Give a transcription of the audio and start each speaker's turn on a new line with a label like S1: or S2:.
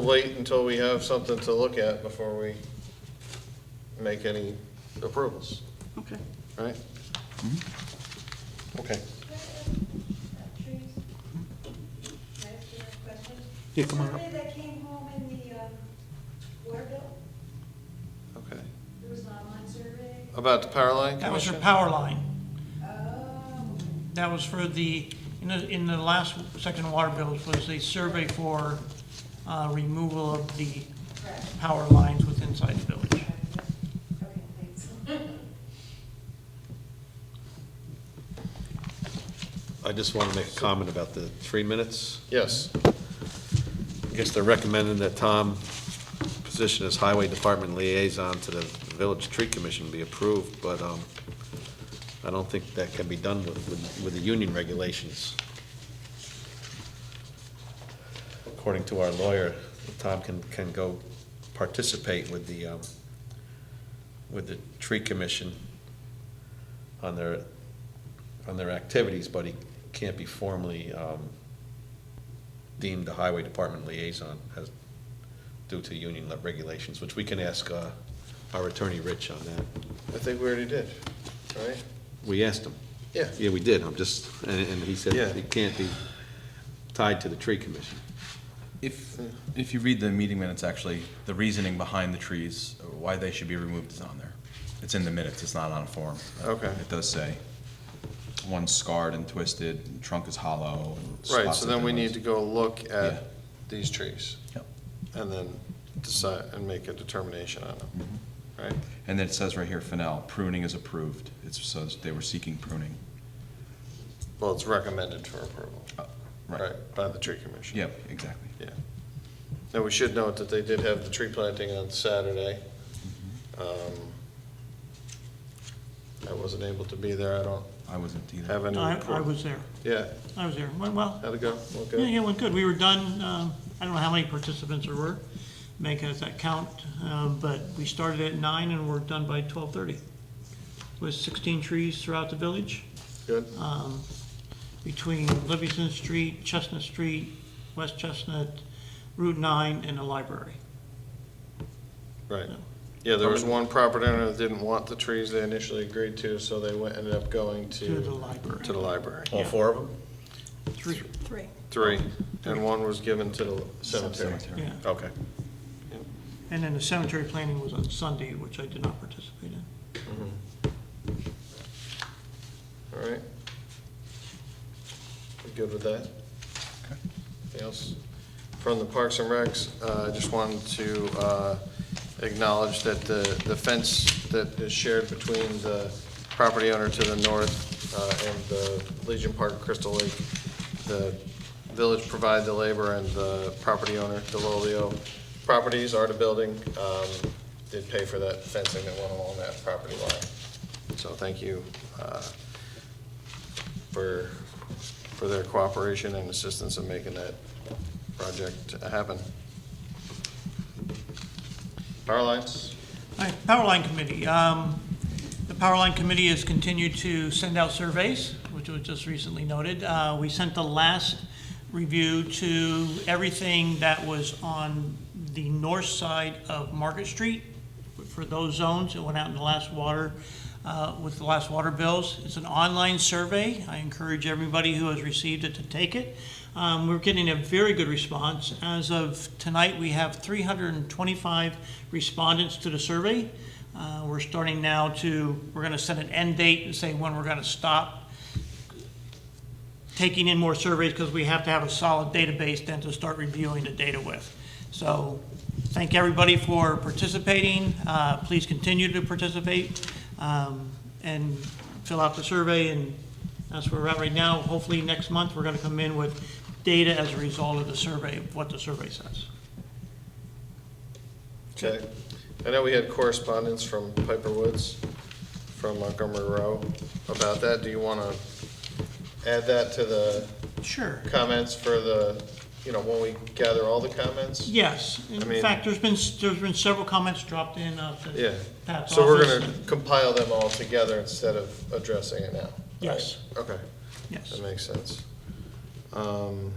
S1: Wait until we have something to look at before we make any approvals,
S2: Okay.
S1: right? Okay.
S3: trees. Can I ask you a question?
S2: Yeah, come on up.
S3: Survey that came home in the um, water bill,
S1: Okay.
S3: there was an online survey.
S1: About the power line
S4: That was for
S1: commission?
S4: power line.
S3: Oh,
S4: That was for the, in the, in the last section of water bills was a survey for uh, removal of the
S3: correct.
S4: power lines with inside the village.
S3: Okay, thanks.
S5: I just want to make a comment about the three minutes.
S1: Yes,
S5: I guess they're recommending that Tom position as Highway Department liaison to the Village Tree Commission be approved, but um, I don't think that can be done with, with with the union regulations. According to our lawyer, Tom can, can go participate with the, um, with the Tree Commission on their, on their activities, but he can't be formally um, deemed the highway department liaison as, due to union regulations, which we can ask uh, our attorney, Rich, on that.
S1: I think we already did, right?
S5: We asked him.
S1: Yeah.
S5: Yeah, we did, I'm just, and, and he said
S1: Yeah.
S5: it can't be tied to the tree commission.
S6: If, if you read the meeting minutes, actually, the reasoning behind the trees, why they should be removed is on there. It's in the minutes, it's not on a form.
S1: Okay.
S6: It does say, one's scarred and twisted, and trunk is hollow. and
S1: Right,
S6: spots
S1: so
S6: of
S1: then we need
S6: demos.
S1: to go look
S6: Yeah.
S1: at these trees.
S6: Yep.
S1: And then decide, and make a determination on them, right?
S6: And then it says right here, Fennel, pruning is approved. It says they were seeking pruning.
S1: Well, it's recommended for approval,
S6: Uh,
S1: right, by the tree commission.
S6: Yep, exactly.
S1: Yeah. Now, we should note that they did have the tree planting on Saturday. Um, I wasn't able to be there, I don't
S6: I wasn't either.
S1: have any
S4: I, I
S1: report.
S4: was there.
S1: Yeah,
S4: I was there. Went well.
S1: how'd it go? Well,
S4: Yeah,
S1: good.
S4: yeah, it went good. We were done, um, I don't know how many participants there were, make us that count, um, but we started at nine and we're done by twelve-thirty. With sixteen trees throughout the village.
S1: Good,
S4: um, between Livingston Street, Chestnut Street, West Chestnut, Route 9, and the library.
S1: right.
S4: no.
S1: Yeah, there was one property owner that didn't want the trees they initially agreed to, so they went, ended up going to.
S4: To the library.
S1: To the library.
S5: All four of them?
S4: Three,
S2: Three.
S1: Three, and one was given to the cemetery.
S4: yeah.
S5: Okay.
S4: And then the cemetery planning was on Sunday, which I did not participate in.
S1: All right. We good with that? Anything else? From the Parks and Recs, uh, I just wanted to uh, acknowledge that the the fence that is shared between the property owner to the north uh, and the Legion Park Crystal Lake, the village provide the labor and the property owner, Delolio Properties, Arta Building, um, did pay for that fencing that went along that property line. So thank you uh, for, for their cooperation and assistance in making that project happen. Power lines?
S4: All right, Power Line Committee. Um, The Power Line Committee has continued to send out surveys, which was just recently noted. Uh, We sent the last review to everything that was on the north side of Market Street for those zones. It went out in the last water, uh, with the last water bills. It's an online survey. I encourage everybody who has received it to take it. Um, We're getting a very good response. As of tonight, we have 325 respondents to the survey. Uh, We're starting now to, we're going to set an end date and say when we're going to stop taking in more surveys because we have to have a solid database then to start reviewing the data with. So thank everybody for participating. Uh, Please continue to participate um, and fill out the survey, and that's where we're at right now. Hopefully, next month, we're going to come in with data as a result of the survey, of what the survey says.
S1: Okay. I know we had correspondence from Piper Woods, from Montgomery Row about that. Do you want to add that to the
S4: Sure.
S1: comments for the, you know, when we gather all the comments?
S4: Yes.
S1: I mean-
S4: In fact, there's been, there's been several comments dropped in of the
S1: Yeah.
S4: Pat's
S1: So we're
S4: office.
S1: going to compile them all together instead of addressing it now?
S4: Yes.
S1: Okay.
S4: Yes.
S1: That makes sense. Um,